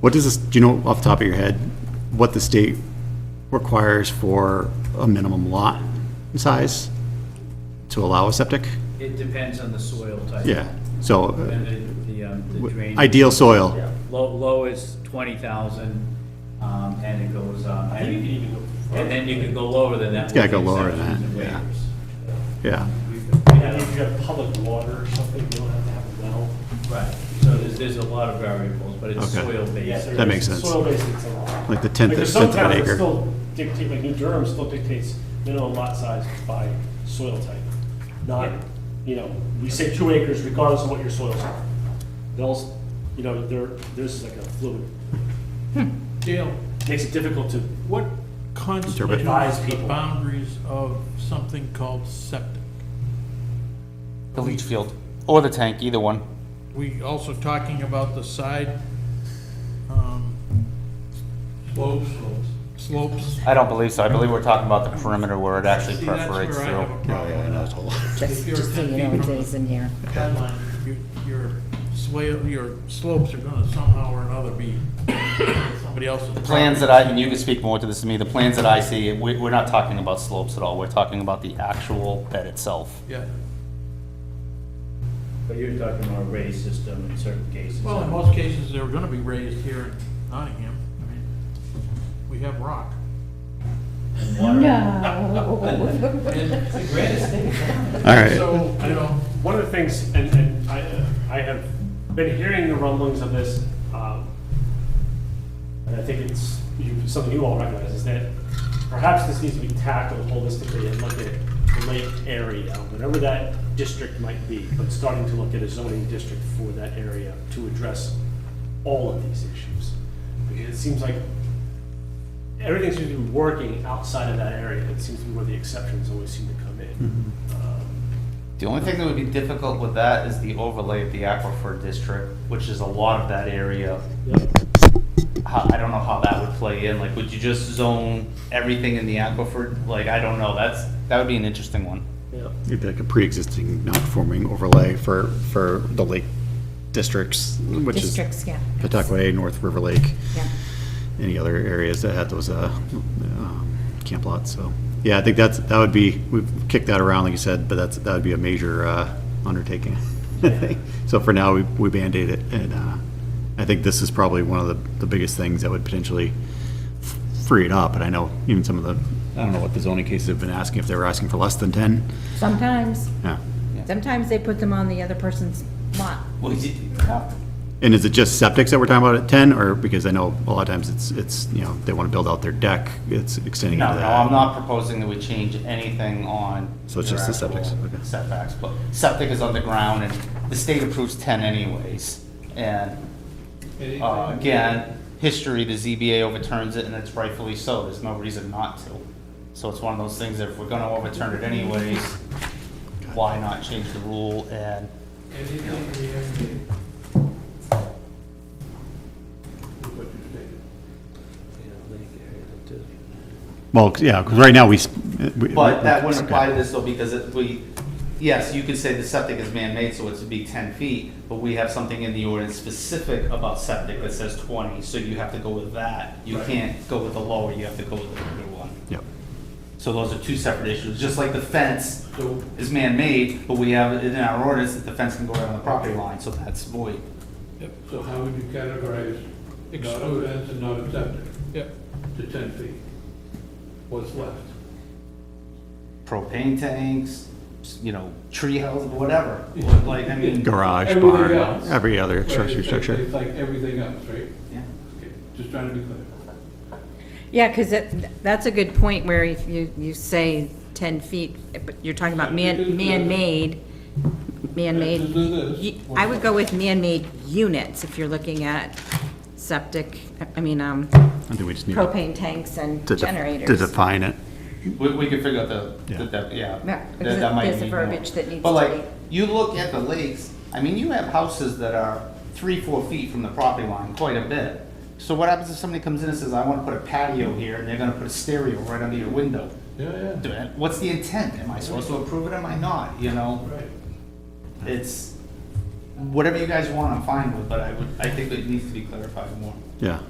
What does this, do you know off the top of your head, what the state requires for a minimum lot size to allow a septic? It depends on the soil type. Yeah, so uh, And the- the, um, the drainage. ideal soil, Yeah, Low, low is twenty thousand, um, and it goes, um, I think you and can even go further. and then you can go lower than that. It's gotta with go lower than exceptions that, and yeah. waivers. yeah. Yeah, if you have public water or something, you don't have to have a well. Right, so there's, there's a lot of variables, but it's Okay. soil-based. Yes, there That is. makes sense. Soil based, it's a lot. Like the tenth- Like, there's tenth of some an towns that acre. Still dictate, like New Durham still dictates minimum lot size by soil type. Not, Yeah. you know, we say two acres regardless of what your soils are. They'll, s- you know, there, there's like a fluid, Dale, makes it difficult to, what constitutes Advise the people. boundaries of something called septic? The leach field, or the tank, either one. We also talking about the side, um. Slopes. Slopes. I don't believe so, I believe we're talking about the perimeter where it actually See, that's where perforates Oh, I through. have a problem with that. Just, You're just so you 10 know, feet it from is in here. Headline, your- Your swale, your slopes are gonna somehow or another be somebody else's. The plans that I, and you can speak more to this than me, the plans that I see, we, we're not talking about slopes at all, we're talking about the actual bed itself. Yeah, But you're talking about a raised system in certain cases. well, in most cases, they're gonna be raised here in Nottingham, I mean, we have rock. No. And- All right, So, you know, one of the things, and, and I, uh, I have been hearing the rumblings of this, um, and I think it's you, something you all recognize, is that perhaps this needs to be tackled holistically and look at the lake area, whatever that district might be, but starting to look at a zoning district for that area to address all of these issues. Because it seems like everything seems to be working outside of that area. It seems to be where the exceptions always seem to come in. Um, The only thing that would be difficult with that is the overlay of the aquifer district, which is a lot of that area. How, I don't know how that would play in, like, would you just zone everything in the aquifer? Like, I don't know, that's, that would be an interesting one. Yeah. it'd be like a pre-existing non-conforming overlay for, for the lake districts, which is Districts, yeah. Pawtucket, North River Lake, Yeah. any other areas that had those, uh, um, camp lots, so. Yeah, I think that's, that would be, we've kicked that around, like you said, but that's, that would be a major, uh, undertaking. So for now, we, we Band-Aid it, and, uh, I think this is probably one of the, the biggest things that would potentially f- free it up, and I know even some of the, I don't know what the zoning cases have been asking, if they were asking for less than ten, Sometimes, yeah. sometimes they put them on the other person's lot. Well, you- And is it just septics that we're talking about at ten, or, because I know a lot of times it's, it's, you know, they wanna build out their deck, it's extending into No, that. no, I'm not proposing that we change anything on. So it's just the your septics, actual okay. Setbacks, but septic is underground and the state approves ten anyways. And, uh, again, history, the ZBA overturns it and it's rightfully so, there's no reason not to. So it's one of those things, that if we're gonna overturn it anyways, why not change the rule and Well, yeah, 'cause right now, we. s- we- But that wouldn't okay. apply to this though, because it, we, yes, you could say the septic is man-made, so it's to be ten feet, but we have something in the ordinance specific about septic that says twenty, so you have to go with that. You can't go with the lower, you have to go with the bigger one. Yep. So those are two separate issues, just like the fence is man-made, but we have it in our ordinance that the fence can go around the property line, so that's void. So how would you categorize not a fence and not a septic Yep. to 10 feet? What's left? Propane tanks, you know, tree houses, whatever, like, I mean. Garage, Everything barn, else. every other But accessory it's- structure. It's like everything else, right? Yeah. Okay, Just trying to be clear. Yeah, because that's a good point where if you, you say 10 feet, but you're talking about man, man-made, man-made. y- I would go with man-made units if you're looking at septic, I mean, um, I think we just need to propane tanks and def- to generators. define it. We, we could figure out the, Yeah. the def- yeah. Yeah, That- because that might there's a need more. verbiage that needs But to like, be- you look at the lakes, I mean, you have houses that are three, four feet from the property line, quite a bit. So what happens if somebody comes in and says, I wanna put a patio here, and they're gonna put a stereo right under your window? Yeah, yeah. Do it. What's the intent? Am I supposed to approve it, am I not, you know? Right. It's, whatever you guys want, I'm fine with, but I would, I think that it needs to be clarified more. yeah.